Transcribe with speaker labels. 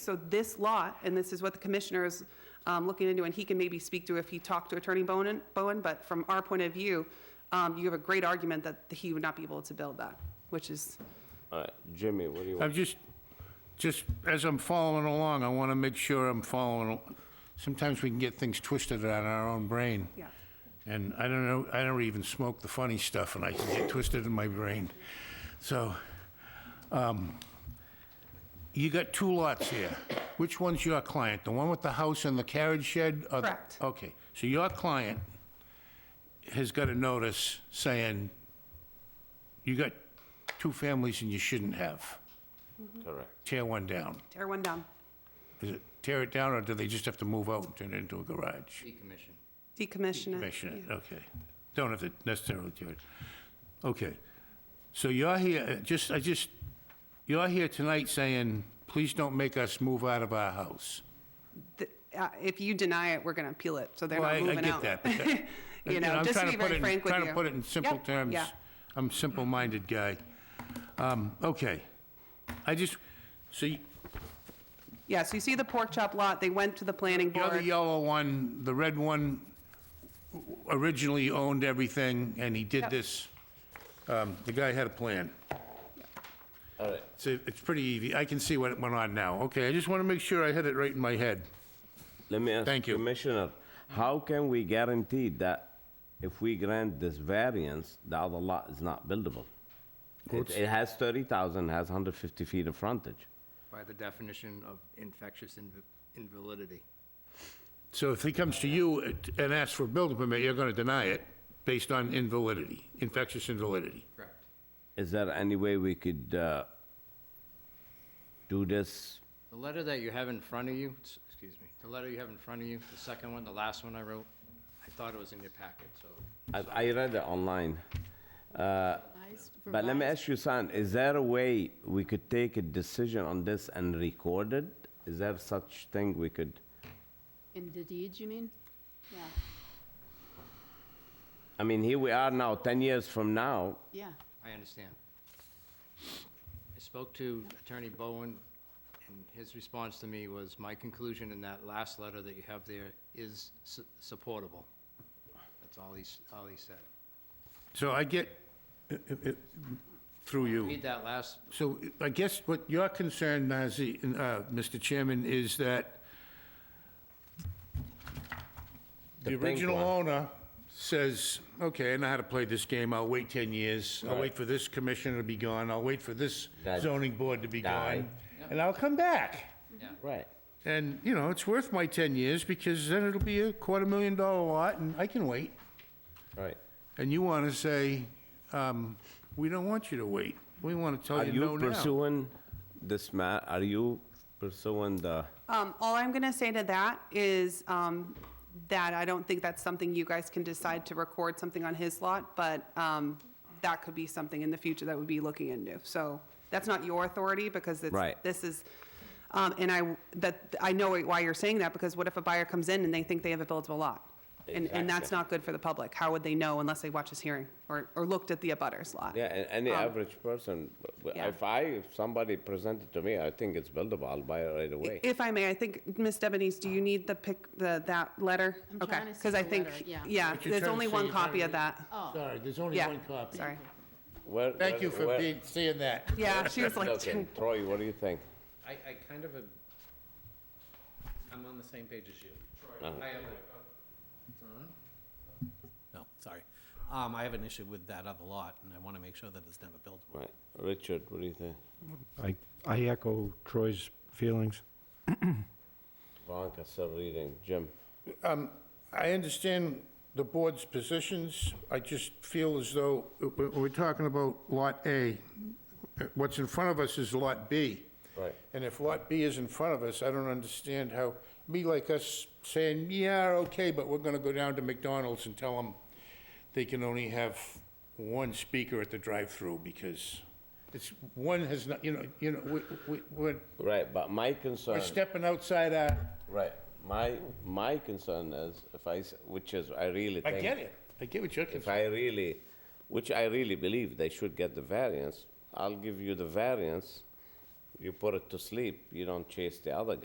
Speaker 1: So this lot, and this is what the commissioner is um, looking into, and he can maybe speak to if he talked to Attorney Bowen, Bowen, but from our point of view, um, you have a great argument that he would not be able to build that, which is,
Speaker 2: All right, Jimmy, what do you
Speaker 3: I'm
Speaker 2: want?
Speaker 3: just, just as I'm following along, I want to make sure I'm following. al- Sometimes we can get things twisted in our own brain.
Speaker 1: yeah.
Speaker 3: And I don't know, I don't even smoke the funny stuff, and I can get twisted in my brain. So, um, you got two lots here. Which one's your client? The one with the house and the carriage shed? or the-
Speaker 1: Correct.
Speaker 3: Okay, so your client has got a notice saying you got two families and you shouldn't have. Uh,
Speaker 2: Correct.
Speaker 3: Tear one down.
Speaker 1: Tear one down,
Speaker 3: Is it tear it down, or do they just have to move out and turn it into a garage?
Speaker 4: decommission.
Speaker 1: decommission it.
Speaker 3: Commission it, okay. Don't have to necessarily do it. Okay. So you're here, uh, just, I just, you're here tonight saying, please don't make us move out of our house.
Speaker 1: Th- uh, If you deny it, we're going to appeal it, so they're
Speaker 3: Well,
Speaker 1: not
Speaker 3: I- I
Speaker 1: moving
Speaker 3: get
Speaker 1: out.
Speaker 3: that, but that-
Speaker 1: You
Speaker 3: And- and
Speaker 1: know,
Speaker 3: I'm
Speaker 1: just to
Speaker 3: trying
Speaker 1: be
Speaker 3: put it
Speaker 1: very
Speaker 3: in-
Speaker 1: frank with you.
Speaker 3: Trying to put it in simple
Speaker 1: Yep,
Speaker 3: terms.
Speaker 1: yeah.
Speaker 3: I'm a simple-minded guy. Um, Okay. I just, so y-
Speaker 1: Yeah, so you see the pork chop lot, they went to the planning
Speaker 3: The other
Speaker 1: board.
Speaker 3: yellow one, the red one originally owned everything, and he did
Speaker 1: Yep.
Speaker 3: this, um, the guy had a plan.
Speaker 2: All right,
Speaker 3: So it's pretty easy, I can see what went on now. Okay, I just want to make sure I had it right in my head.
Speaker 2: let me ask
Speaker 3: Thank you.
Speaker 2: Commissioner, how can we guarantee that if we grant this variance, the other lot is not buildable? It, it has 30,000, has 150 feet of frontage.
Speaker 4: By the definition of infectious inv- invalidity.
Speaker 3: So if he comes to you at- and asks for a building permit, you're going to deny it based on invalidity, infectious invalidity.
Speaker 4: Correct.
Speaker 2: Is there any way we could uh, do this?
Speaker 4: The letter that you have in front of you, s- excuse me, the letter you have in front of you, the second one, the last one I wrote, I thought it was in your packet, so.
Speaker 2: I, I read it online. Uh, But let me ask you, son, is there a way we could take a decision on this and record it? Is there such thing we could?
Speaker 5: In the deeds, you mean? Yeah,
Speaker 2: I mean, here we are now, 10 years from now,
Speaker 5: yeah.
Speaker 4: I understand. I spoke to Attorney Bowen, and his response to me was, my conclusion in that last letter that you have there is su- supportable. That's all he's, all he said.
Speaker 3: So I get, i- i- i- through you.
Speaker 4: Read that last,
Speaker 3: So I guess what your concern, Nazi, uh, Mr. Chairman, is that the
Speaker 2: pink
Speaker 3: original
Speaker 2: one.
Speaker 3: owner says, okay, I know how to play this game, I'll wait 10 years, I'll wait for this commissioner to be gone, I'll wait for this
Speaker 2: That-
Speaker 3: zoning board to be
Speaker 2: Die.
Speaker 3: gone, and I'll come back.
Speaker 4: yeah.
Speaker 2: Right.
Speaker 3: And, you know, it's worth my 10 years, because then it'll be a quarter million dollar lot, and I can wait.
Speaker 2: Right.
Speaker 3: And you want to say, um, we don't want you to wait, we want to
Speaker 2: Are
Speaker 3: tell you
Speaker 2: you
Speaker 3: no now.
Speaker 2: pursuing this ma, are you pursuing the,
Speaker 1: Um, All I'm going to say to that is um, that I don't think that's something you guys can decide to record something on his lot, but um, that could be something in the future that we'd be looking into. So that's not your authority because it's.
Speaker 2: Right.
Speaker 1: This is, um, and I, that, I know why you're saying that because what if a buyer comes in and they think they have a buildable lot? And, and that's
Speaker 2: Exactly.
Speaker 1: not good for the public. How would they know unless they watch this hearing or, or looked at the abutters lot?
Speaker 2: yeah, a- any average person, w- w-
Speaker 1: yeah.
Speaker 2: if I, if somebody presented to me, I think it's buildable, I'll buy it right away.
Speaker 1: If I may, I think, Ms. Debonese, do you need the pic, the, that letter?
Speaker 5: I'm
Speaker 1: Okay,
Speaker 5: trying to see
Speaker 1: Because I
Speaker 5: the
Speaker 1: think,
Speaker 5: letter, yeah.
Speaker 1: yeah,
Speaker 3: But you're
Speaker 1: there's
Speaker 3: trying to
Speaker 1: only
Speaker 3: say
Speaker 1: one
Speaker 3: you're trying
Speaker 1: copy
Speaker 3: to
Speaker 1: of that.
Speaker 3: Sorry, there's only
Speaker 1: Yeah,
Speaker 3: one copy.
Speaker 1: sorry.
Speaker 2: Where-
Speaker 3: Thank
Speaker 2: where-
Speaker 3: you for
Speaker 2: where-
Speaker 3: being, seeing that.
Speaker 1: Yeah, she was like,
Speaker 2: Okay, Troy, what do you think?
Speaker 6: I, I kind of, am- I'm on the same page as you. I have a- No, sorry. Um, I have an issue with that other lot, and I want to make sure that it's never built.
Speaker 2: Right, Richard, what do you think?
Speaker 7: I, I echo Troy's feelings.
Speaker 2: Veronica still reading, Jim?
Speaker 3: I understand the board's positions. I just feel as though, w- w- we're talking about Lot A. uh, What's in front of us is Lot B.
Speaker 2: Right.
Speaker 3: And if Lot B is in front of us, I don't understand how, be like us saying, yeah, okay, but we're going to go down to McDonald's and tell them they can only have one speaker at the drive-through because it's, one has not, you know, you know, we- we- we're
Speaker 2: Right, but my
Speaker 3: we're
Speaker 2: concern,
Speaker 3: stepping outside our,
Speaker 2: right, my, my concern is if I, s- which is, I really
Speaker 3: I
Speaker 2: think.
Speaker 3: get it. I get what you're
Speaker 2: If
Speaker 3: concerned.
Speaker 2: I really, which I really believe they should get the variance, I'll give you the variance you put it to sleep, you don't chase the other guy.